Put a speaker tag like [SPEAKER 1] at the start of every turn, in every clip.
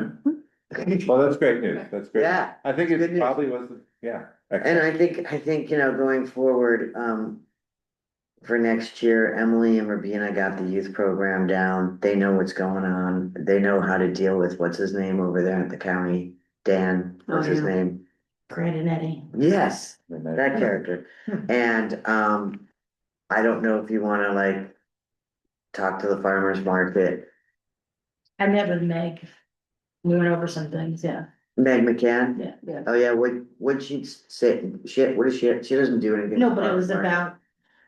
[SPEAKER 1] Well, that's great news. That's great.
[SPEAKER 2] Yeah,
[SPEAKER 1] I think
[SPEAKER 2] Good
[SPEAKER 1] it
[SPEAKER 2] news.
[SPEAKER 1] probably was, yeah.
[SPEAKER 2] and I think, I think, you know, going forward, um. For next year, Emily and Rabina got the youth program down. They know what's going on. They know how to deal with what's his name over there at the county. Dan, what's his
[SPEAKER 3] Oh, yeah.
[SPEAKER 2] name?
[SPEAKER 3] Brandon Eddie.
[SPEAKER 2] Yes,
[SPEAKER 1] Excellent.
[SPEAKER 2] that character.
[SPEAKER 3] Hmm.
[SPEAKER 2] And, um, I don't know if you wanna like. Talk to the farmer's market,
[SPEAKER 3] I met with Meg. We went over some things, yeah,
[SPEAKER 2] Meg McCann.
[SPEAKER 3] yeah, yeah.
[SPEAKER 2] Oh, yeah, what, what she say, shit, what is she, she doesn't do anything.
[SPEAKER 3] No, but it
[SPEAKER 2] Farmer's
[SPEAKER 3] was
[SPEAKER 2] Market.
[SPEAKER 3] about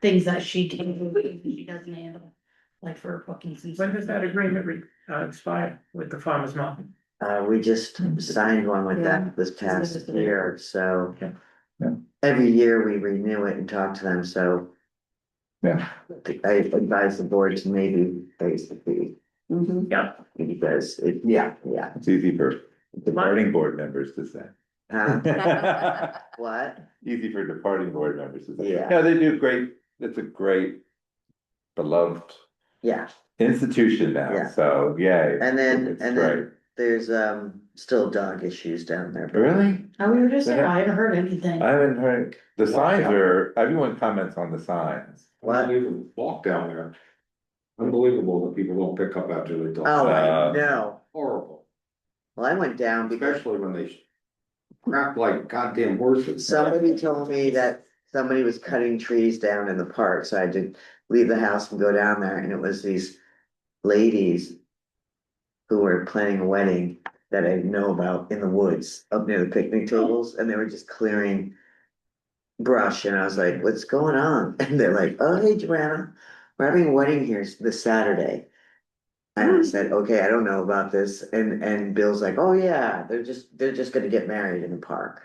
[SPEAKER 3] things that she did, she doesn't handle, like for bookings and.
[SPEAKER 4] When does that agreement re- uh, expire with the farmer's market?
[SPEAKER 2] Uh, we just signed one with
[SPEAKER 3] Mm-hmm. Yeah.
[SPEAKER 2] them this
[SPEAKER 3] This
[SPEAKER 2] past
[SPEAKER 3] is the-
[SPEAKER 2] year, so.
[SPEAKER 4] Yeah.
[SPEAKER 1] Yeah.
[SPEAKER 2] Every year we renew it and talk to them, so
[SPEAKER 1] Yeah.
[SPEAKER 2] I advise the board to maybe raise the fee.
[SPEAKER 3] Mhm.
[SPEAKER 4] Yeah.
[SPEAKER 2] Because it, yeah, yeah.
[SPEAKER 1] It's easy for departing board members to say.
[SPEAKER 2] Huh? Uh, What?
[SPEAKER 1] Easy for departing board members to say.
[SPEAKER 2] Yeah.
[SPEAKER 1] No, they do great. It's a great beloved
[SPEAKER 2] Yeah,
[SPEAKER 1] institution
[SPEAKER 2] Yeah.
[SPEAKER 1] now, so yay.
[SPEAKER 2] and then,
[SPEAKER 1] It's
[SPEAKER 2] and
[SPEAKER 1] great.
[SPEAKER 2] then there's um still dog issues down there. but-
[SPEAKER 1] Really?
[SPEAKER 3] Oh, we were just there, I haven't heard anything.
[SPEAKER 1] I haven't heard, the signs are, everyone comments on the signs.
[SPEAKER 2] What?
[SPEAKER 5] Unbelievable, walk down there. Unbelievable that people don't pick up after they talk.
[SPEAKER 2] Oh, I
[SPEAKER 1] Uh,
[SPEAKER 2] know.
[SPEAKER 5] Horrible,
[SPEAKER 2] Well, I went down because
[SPEAKER 5] especially when they crap like goddamn horses.
[SPEAKER 2] Somebody told me that somebody was cutting trees down in the park, so I had to leave the house and go down there, and it was these ladies. Who were planning a wedding that I know about in the woods up near the picnic
[SPEAKER 3] Mm-hmm.
[SPEAKER 2] tables, and they were just clearing. Brush, and I was like, what's going on? And they're like, oh, hey, Joanna, we're having a wedding here this Saturday. And I
[SPEAKER 3] Mm-hmm.
[SPEAKER 2] said, okay, I don't know about this, and and Bill's like, oh, yeah, they're just, they're just gonna get married in the park.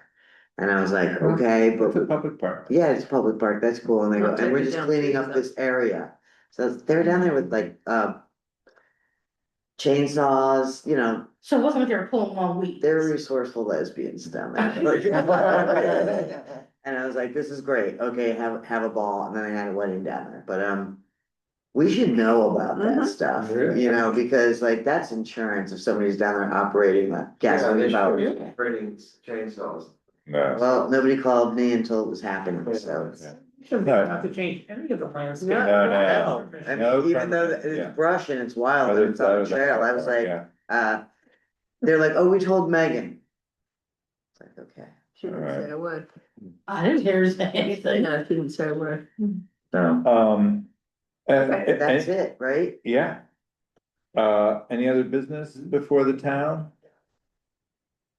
[SPEAKER 2] And I was like,
[SPEAKER 3] Uh-huh.
[SPEAKER 2] okay,
[SPEAKER 1] It's a
[SPEAKER 2] but
[SPEAKER 1] public park.
[SPEAKER 2] yeah, it's a public park, that's cool, and they go,
[SPEAKER 3] I'll
[SPEAKER 2] and we're
[SPEAKER 3] take it
[SPEAKER 2] just
[SPEAKER 3] Oh, down,
[SPEAKER 2] cleaning
[SPEAKER 3] please,
[SPEAKER 2] up
[SPEAKER 3] though." Mm-hmm.
[SPEAKER 2] this area. So they were down there with like, uh. Chainsaws, you know,
[SPEAKER 3] So it wasn't like they were pulling long weeds.
[SPEAKER 2] they're resourceful lesbians down there. And I was like, this is great, okay, have, have a ball, and then I had a wedding down there, but, um. We should know about
[SPEAKER 3] Mhm.
[SPEAKER 6] Mm-hmm.
[SPEAKER 2] that stuff,
[SPEAKER 5] Yeah.
[SPEAKER 2] you know, because like that's insurance if somebody's down there operating a
[SPEAKER 6] Yeah, they
[SPEAKER 2] gasoline
[SPEAKER 6] should
[SPEAKER 2] powered.
[SPEAKER 6] be Creating chainsaws.
[SPEAKER 1] No.
[SPEAKER 2] Well, nobody called me until it was happening, so.
[SPEAKER 4] Shouldn't
[SPEAKER 1] No.
[SPEAKER 4] have to change any of the landscape.
[SPEAKER 2] No,
[SPEAKER 1] no,
[SPEAKER 2] Oh, I
[SPEAKER 1] No
[SPEAKER 2] mean, even though
[SPEAKER 1] permit, yeah.
[SPEAKER 2] it's brush and it's wild
[SPEAKER 1] Other
[SPEAKER 2] and it's on the
[SPEAKER 1] side of
[SPEAKER 2] trail, I was
[SPEAKER 1] park,
[SPEAKER 2] like,
[SPEAKER 1] yeah.
[SPEAKER 2] uh, they're like, oh, we told Megan. It's like, okay.
[SPEAKER 7] She didn't
[SPEAKER 1] Alright.
[SPEAKER 7] say a word.
[SPEAKER 3] I didn't hear anything.
[SPEAKER 7] No, she didn't say a word.
[SPEAKER 2] No.
[SPEAKER 1] Um. and- and-
[SPEAKER 2] That's it, right?
[SPEAKER 1] Yeah. Uh, any other business before the town?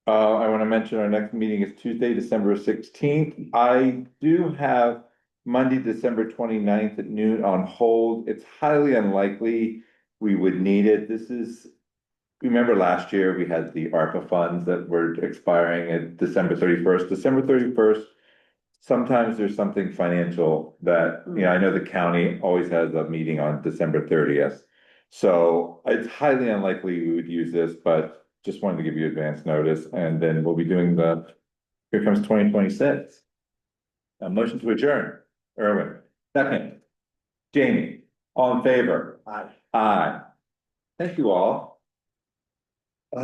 [SPEAKER 1] Uh, I wanna mention our next meeting is Tuesday, December sixteenth. I do have Monday, December 29th at noon on hold. It's highly unlikely we would need it. This is. Remember last year, we had the ARPA funds that were expiring at December thirty-first, December thirty-first. Sometimes there's something financial that, you know, I know the county always has a meeting on December thirtieth. So it's highly unlikely we would use this, but just wanted to give you advance notice and then we'll be doing the, here comes twenty twenty-six. A motion to adjourn, Erwin, second. Jamie, all in favor? Aye. Aye. Thank you all.